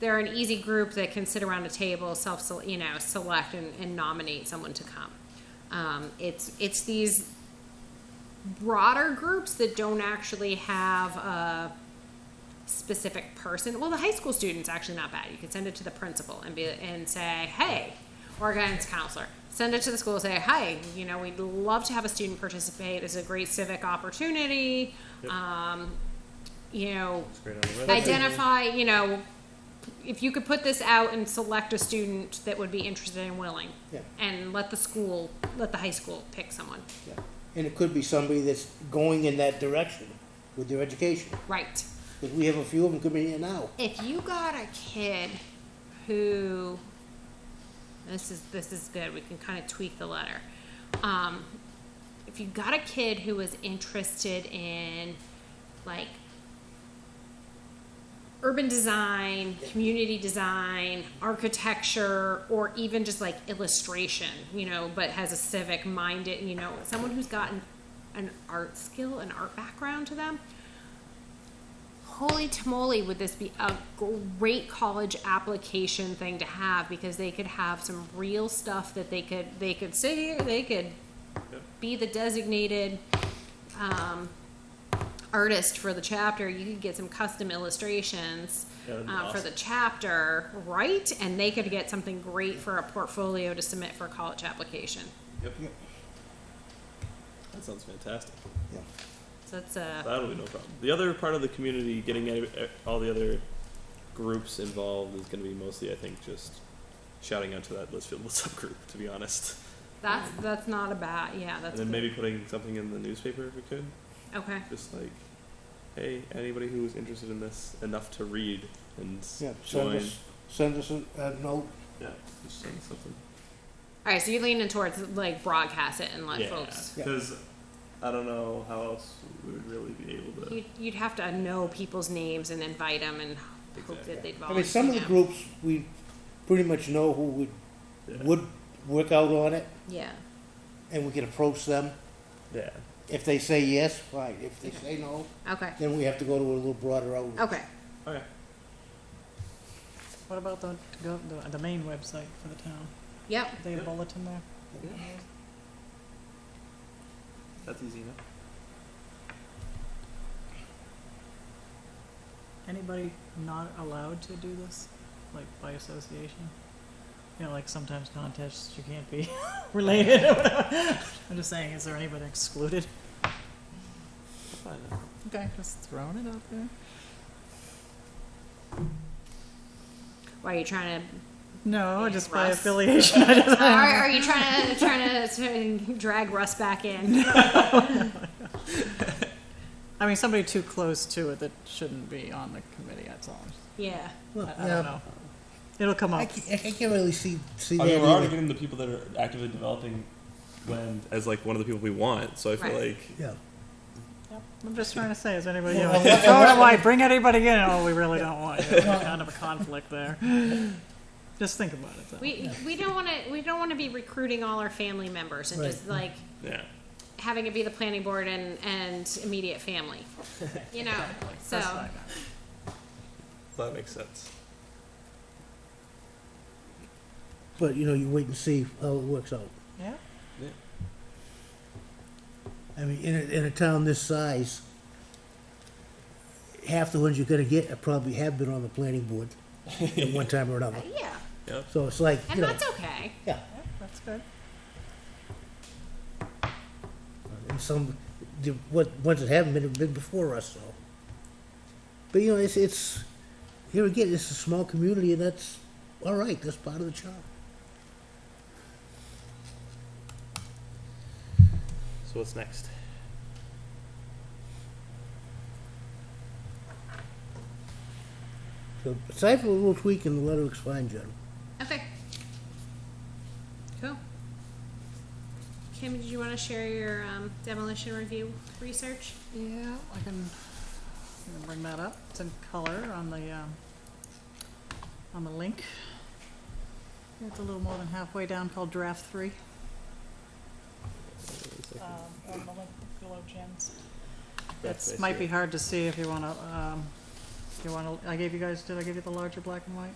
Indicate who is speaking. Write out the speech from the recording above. Speaker 1: they're an easy group that can sit around a table, self, you know, select and, and nominate someone to come. Um, it's, it's these broader groups that don't actually have a specific person. Well, the high school student's actually not bad. You can send it to the principal and be and say, hey, or guidance counselor. Send it to the school and say, hey, you know, we'd love to have a student participate. It's a great civic opportunity. Um, you know,
Speaker 2: Great on the weather.
Speaker 1: identify, you know, if you could put this out and select a student that would be interested and willing.
Speaker 3: Yeah.
Speaker 1: And let the school, let the high school pick someone.
Speaker 3: Yeah. And it could be somebody that's going in that direction with their education.
Speaker 1: Right.
Speaker 3: Because we have a few of them coming in now.
Speaker 1: if you got a kid who this is this is good we can kind of tweak the letter um, if you got a kid who was interested in like urban design community design architecture or even just like illustration you know but has a civic minded you know someone who's gotten an art skill an art background to them holy tamale would this be a great college application thing to have because they could have some real stuff that they could they could sit here they could be the designated um, artist for the chapter you could get some custom illustrations
Speaker 2: Yeah, that'd be
Speaker 1: uh, for
Speaker 2: awesome.
Speaker 1: the chapter right and they could get something great for a portfolio to submit for a college application
Speaker 2: Yep. That sounds fantastic.
Speaker 3: Yeah.
Speaker 1: so that's a
Speaker 2: That'll be no problem. The other part of the community getting any- eh, all the other groups involved is going to be mostly, I think, just shouting out to that Litchfield What's Up group, to be honest.
Speaker 1: that's that's not a bad yeah that's
Speaker 2: and then
Speaker 1: good.
Speaker 2: maybe putting something in the newspaper if we could.
Speaker 1: okay
Speaker 2: Just like, hey, anybody who is interested in this enough to read and
Speaker 3: Yeah. Send
Speaker 2: join.
Speaker 3: us, send us a, a note.
Speaker 2: Yeah, just send something.
Speaker 1: all right so you're leaning towards like broadcast it and let
Speaker 2: yeah,
Speaker 1: folks
Speaker 3: Yeah.
Speaker 2: because I don't know how else we would really be able to.
Speaker 1: You'd, you'd have to know people's names and invite them and hope
Speaker 2: Exactly.
Speaker 1: that they'd
Speaker 3: I
Speaker 1: volunteer.
Speaker 3: mean, some of the
Speaker 1: Yeah.
Speaker 3: groups, we pretty much know who would,
Speaker 2: Yeah.
Speaker 3: would work out on it
Speaker 1: Yeah,
Speaker 3: and we can approach them.
Speaker 2: yeah.
Speaker 3: If they say yes, fine. If they say no,
Speaker 1: okay,
Speaker 3: then we have to go to a little broader outreach.
Speaker 1: okay.
Speaker 2: Oh, yeah.
Speaker 4: What about the, go, the the main website for the town?
Speaker 1: Yep,
Speaker 4: Is there a
Speaker 2: Yep.
Speaker 4: bulletin there?
Speaker 2: That's easy enough.
Speaker 4: Anybody not allowed to do this, like by association? You know, like sometimes contests you can't be related or whatever. I'm just saying, is there anybody excluded?
Speaker 2: Fine. then.
Speaker 4: Okay, just throwing it out there.
Speaker 1: why are you trying to,
Speaker 4: No, just by
Speaker 1: Russ.
Speaker 4: affiliation. I just-
Speaker 1: or are you trying to, trying to drag Russ back in?
Speaker 4: I mean, somebody too close to it that shouldn't be on the committee. That's all.
Speaker 1: Yeah,
Speaker 4: I, I
Speaker 3: Yeah.
Speaker 4: don't know. It'll come
Speaker 3: I
Speaker 4: up.
Speaker 3: ca- I can't, really see, see
Speaker 2: I
Speaker 3: that
Speaker 2: mean, we're already
Speaker 3: either.
Speaker 2: getting the people that are actively developing land as like one of the people we want. So I feel
Speaker 1: Right.
Speaker 2: like
Speaker 3: Yeah.
Speaker 4: I'm just trying to say, is anybody?
Speaker 3: Well,
Speaker 4: Or
Speaker 3: unless- unless-
Speaker 4: do I bring anybody in? Oh, we really don't want you. There's kind of a conflict there. Just think about it. Though.
Speaker 1: we, we don't wanna, we don't wanna be recruiting all our family members and just like
Speaker 2: yeah,
Speaker 1: having it be the planning board and, and immediate family. You know,
Speaker 4: Like,
Speaker 1: so,
Speaker 4: that's fine.
Speaker 2: so that makes sense.
Speaker 3: But, you know, you wait and see how it works out.
Speaker 4: Yeah.
Speaker 3: I mean, in a, in a town this size, half the ones you're gonna get probably have been on the planning board at one time or another.
Speaker 1: yeah,
Speaker 3: So it's like, you
Speaker 1: and
Speaker 3: know,
Speaker 1: that's okay.
Speaker 3: yeah,
Speaker 4: yeah, that's good.
Speaker 3: and some, the, what, ones that haven't been, have been before us, so. But, you know, it's, it's, here again, it's a small community, and that's, all right, that's part of the charm.
Speaker 2: So what's next?
Speaker 3: So aside from a little tweak in the letter, looks fine, John.
Speaker 1: Okay. Cool. Kim, did you want to share your um, demolition review research?
Speaker 4: Yeah, I can, I can bring that up. It's in color on the, um, on the link. It's a little more than halfway down called draft three. Um, on the link below Jen's. It's, might be hard to see if you wanna, um, if you wanna, I gave you guys, did I give you the larger black and white?